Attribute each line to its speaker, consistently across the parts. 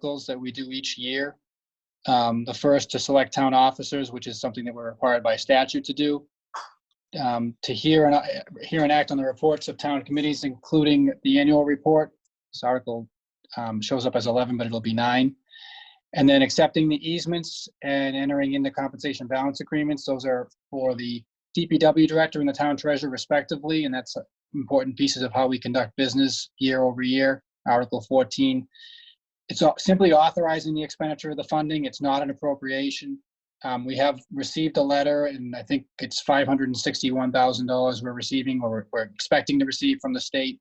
Speaker 1: cycles that we do each year. Um, The first to select town officers, which is something that we're required by statute to do. Um, To hear and, hear and act on the reports of town committees, including the annual report. This article um, shows up as 11, but it'll be nine. And then accepting the easements and entering into compensation balance agreements. Those are for the DPW director and the town treasurer respectively, and that's uh, important pieces of how we conduct business year over year. Article 14. It's au- simply authorizing the expenditure of the funding. It's not an appropriation. Um, We have received a letter, and I think it's $561,000 we're receiving or we're- we're expecting to receive from the state.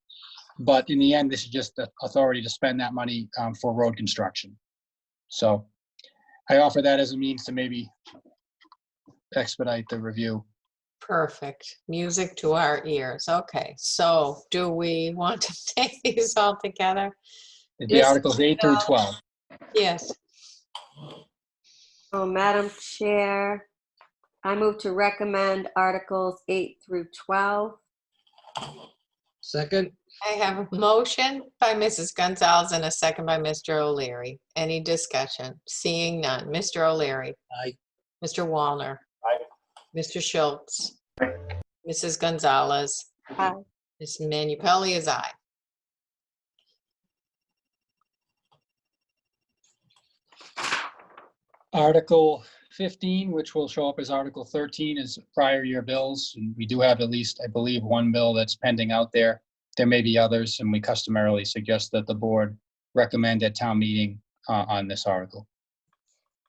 Speaker 1: But in the end, this is just the authority to spend that money um, for road construction. So I offer that as a means to maybe expedite the review.
Speaker 2: Perfect. Music to our ears. Okay, so do we want to take these all together?
Speaker 1: It'd be
Speaker 2: Yes.
Speaker 1: Articles 8 through 12.
Speaker 2: Yes,
Speaker 3: So, Madam Chair, I move to recommend Articles 8 through 12.
Speaker 4: Second,
Speaker 2: I have a motion by Mrs. Gonzalez and a second by Mr. O'Leary. Any discussion? Seeing none. Mr. O'Leary.
Speaker 4: Aye.
Speaker 2: Mr. Wallner. Mr. Schultz. Mrs. Gonzalez.
Speaker 3: Aye.
Speaker 2: Ms. Manu Pelley is aye.
Speaker 1: Article 15, which will show up as Article 13, is prior year bills. and We do have at least, I believe, one bill that's pending out there. There may be others, and we customarily suggest that the board recommend at town meeting uh, on this article.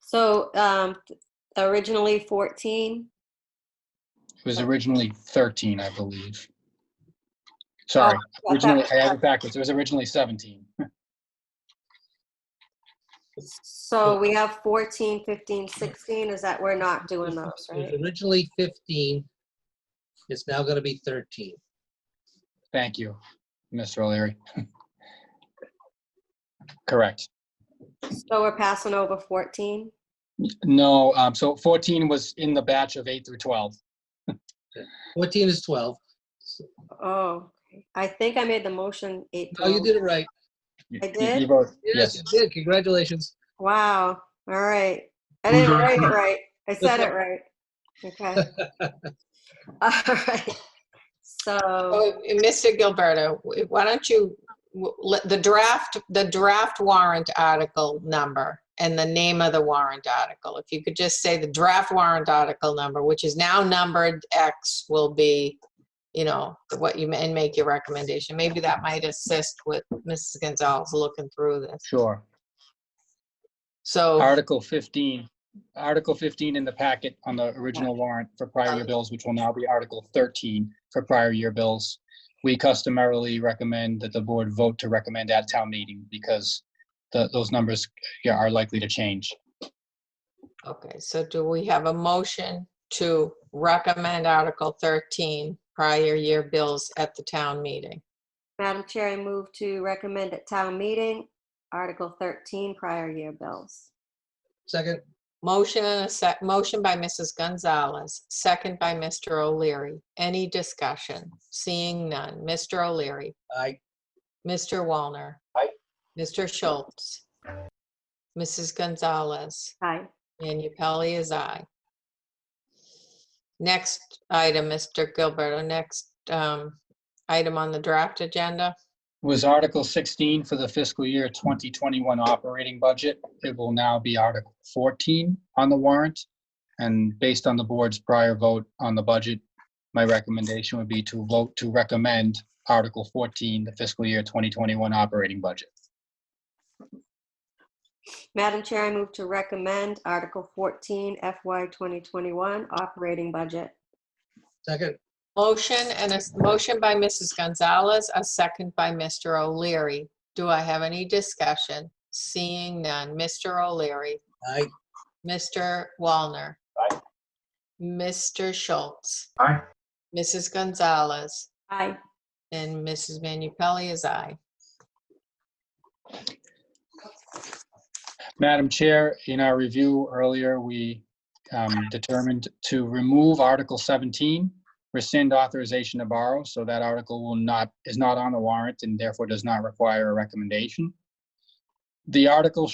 Speaker 3: So um, originally 14,
Speaker 1: It was originally 13, I believe. Sorry,
Speaker 3: I thought-
Speaker 1: originally, I have it backwards. It was originally 17.
Speaker 3: so we have 14, 15, 16, is that we're not doing those,
Speaker 4: it was
Speaker 3: right?
Speaker 4: originally 15, it's now going to be 13.
Speaker 1: Thank you, Mr. O'Leary. Correct.
Speaker 3: So we're passing over 14?
Speaker 1: No, um, so 14 was in the batch of 8 through 12.
Speaker 4: 14 is 12.
Speaker 3: Oh, I think I made the motion 8.
Speaker 4: Oh, you did it right.
Speaker 1: You-
Speaker 3: I
Speaker 1: you-
Speaker 3: did?
Speaker 1: You vote,
Speaker 4: Yes,
Speaker 1: yes.
Speaker 4: you did. Congratulations.
Speaker 3: Wow, all right. I didn't write it right. I said it right. Okay. All right. So,
Speaker 2: Oh, Mr. Gilberto, why don't you, w- let- the draft, the draft warrant article number and the name of the warrant article, if you could just say the draft warrant article number, which is now numbered X, will be, you know, what you, ma- and make your recommendation. Maybe that might assist with Mrs. Gonzalez looking through this.
Speaker 1: Sure.
Speaker 2: So,
Speaker 1: Article 15, Article 15 in the packet on the original warrant for prior year bills, which will now be Article 13 for prior year bills. We customarily recommend that the board vote to recommend at town meeting because the, those numbers yeah, are likely to change.
Speaker 2: okay, so do we have a motion to recommend Article 13, prior year bills at the town meeting?
Speaker 3: Madam Chair, I move to recommend at town meeting, Article 13, prior year bills.
Speaker 4: Second,
Speaker 2: Motion and a sec, motion by Mrs. Gonzalez, second by Mr. O'Leary. Any discussion? Seeing none. Mr. O'Leary,
Speaker 4: aye.
Speaker 2: Mr. Wallner.
Speaker 4: Aye.
Speaker 2: Mr. Schultz. Mrs. Gonzalez,
Speaker 3: Aye.
Speaker 2: and Pelley is aye. Next item, Mr. Gilberto, next um, item on the draft agenda.
Speaker 1: Was Article 16 for the fiscal year 2021 operating budget. It will now be Article 14 on the warrant. And based on the board's prior vote on the budget, my recommendation would be to vote to recommend Article 14, the fiscal year 2021 operating budget.
Speaker 3: Madam Chair, I move to recommend Article 14, FY 2021, operating budget.
Speaker 4: Second,
Speaker 2: Motion and a, s- motion by Mrs. Gonzalez, a second by Mr. O'Leary. Do I have any discussion? Seeing none. Mr. O'Leary,
Speaker 4: aye.
Speaker 2: Mr. Wallner.
Speaker 4: Aye.
Speaker 2: Mr. Schultz.
Speaker 4: Aye.
Speaker 2: Mrs. Gonzalez
Speaker 3: Aye.
Speaker 2: and Mrs. Manu Pelley is aye.
Speaker 1: Madam Chair, in our review earlier, we um, determined to remove Article 17, rescind authorization to borrow, so that article will not, is not on the warrant and therefore does not require a recommendation. The article